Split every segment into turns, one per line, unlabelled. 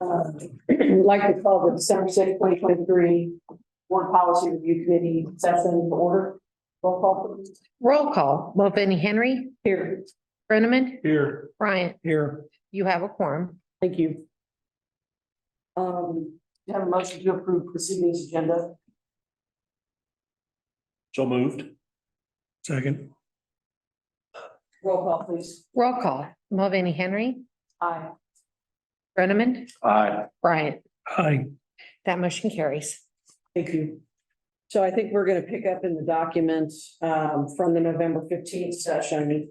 uh, like to call the December sixth, twenty twenty-three Board Policy Review Committee session to order. Roll call please.
Roll call, Mulvaney Henry,
Here.
Brenneman,
Here.
Bryant,
Here.
you have a quorum.
Thank you. Um, do you have a motion to approve this evening's agenda?
So moved. Second.
Roll call, please.
Roll call, Mulvaney Henry,
Aye.
Brenneman,
Aye.
Bryant.
Aye.
That motion carries.
Thank you. So I think we're gonna pick up in the documents um from the November fifteenth session.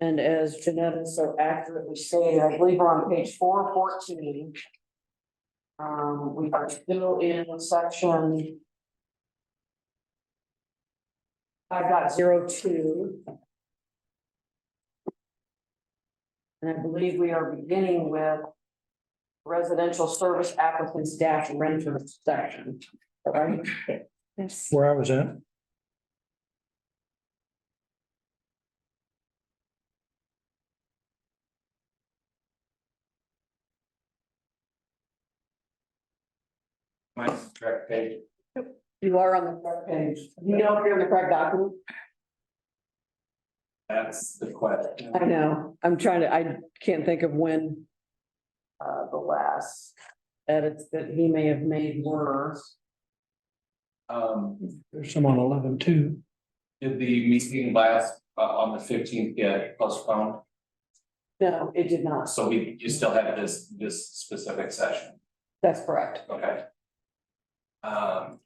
And as Janetta so accurately stated, I believe we're on page four fourteen. Um, we are still in section. I've got zero two. And I believe we are beginning with. Residential service applicants dash renters section. Right,
Yes.
Where I was at?
Mine's correct page.
you are on the correct page. You know if you're on the correct document?
That's the question.
I know, I'm trying to, I can't think of when. Uh, the last edits that he may have made were.
Um,
There's some on eleven two.
did the meeting last, uh, on the fifteenth get postponed?
No, it did not.
So we, you still have this, this specific session,
That's correct.
okay? Um.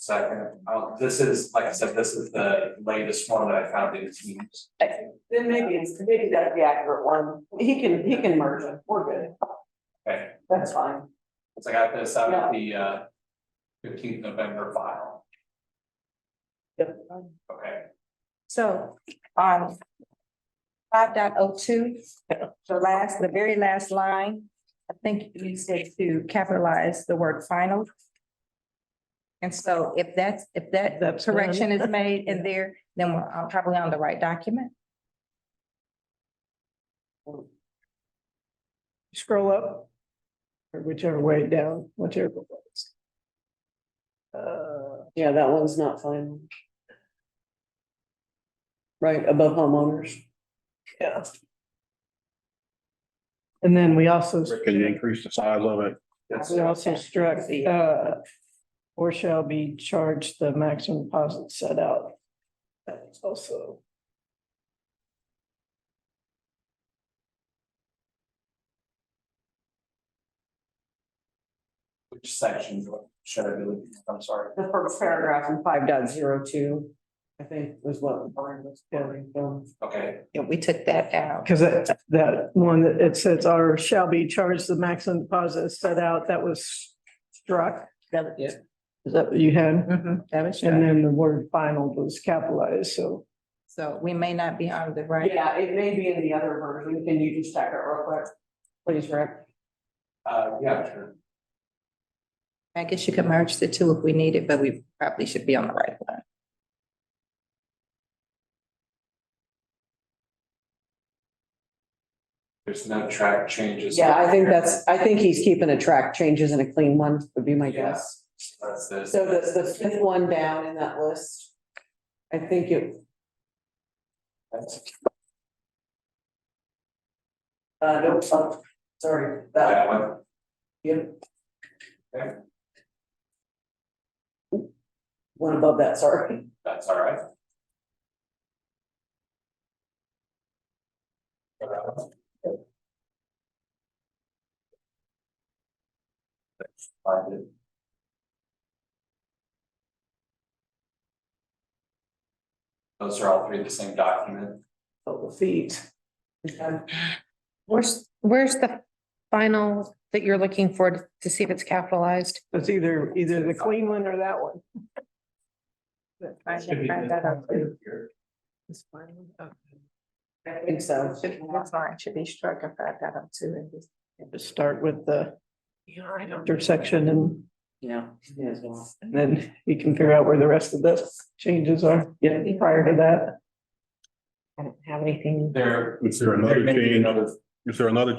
Second, uh, this is, like I said, this is the latest one that I found in Teams.
Then maybe it's, maybe that's the accurate one. He can, he can merge it. We're good.
Okay,
That's fine.
so I got this out of the, uh, fifteenth November file, okay?
So, um. Five dot oh two, the last, the very last line, I think you said to capitalize the word final. And so if that's, if that
That's done.
correction is made in there, then we're uh, probably on the right document.
scroll up. Or whichever way down, whichever. way it's- Uh,
Yeah, that one's not final. Right, above homeowners.
yeah. And then we also.
Could you increase the size of it?
That's-
We also struck the, uh, or shall be charged the maximum deposit set out. That's also.
Which section should I be looking at? I'm sorry.
The first paragraph in five dot zero two, I think was what. Lauren was going from.
Okay,
Yeah, we took that out.
Because that, that one that it says or shall be charged the maximum deposit set out, that was struck.
Yeah.
Is that what you had?
Mhm, that was,
And
right.
then the word final was capitalized, so.
so we may not be on the right.
Yeah, it may be in the other version. Can you just check it real quick? Please, Rick.
uh, yeah, sure.
I guess you could merge the two if we need it, but we probably should be on the right one.
There's no track changes.
Yeah, I think that's, I think he's keeping a track, changes in a clean one would be my guess.
That's this.
So the, the fifth one down in that list. I think it,
That's-
uh, no, oh, sorry, that,
That one,
yeah.
Okay.
One above that, sorry.
that's all right. Uh, Find it. Those are all three the same document.
Oh, the feet.
Where's, where's the final that you're looking for to- to see if it's capitalized?
It's either, either the clean one or that one.
Find
Should
that-
be
find that out.
here.
I think so.
Should be- That's fine, should be struck if I got up to it.
Just start with the
Yeah, I don't.
intersection and
Yeah. may as well.
and then you can figure out where the rest of the changes are. Yeah. Prior to that.
I don't have anything.
There.
Is there
there
another
may be
change?
Another
Is there another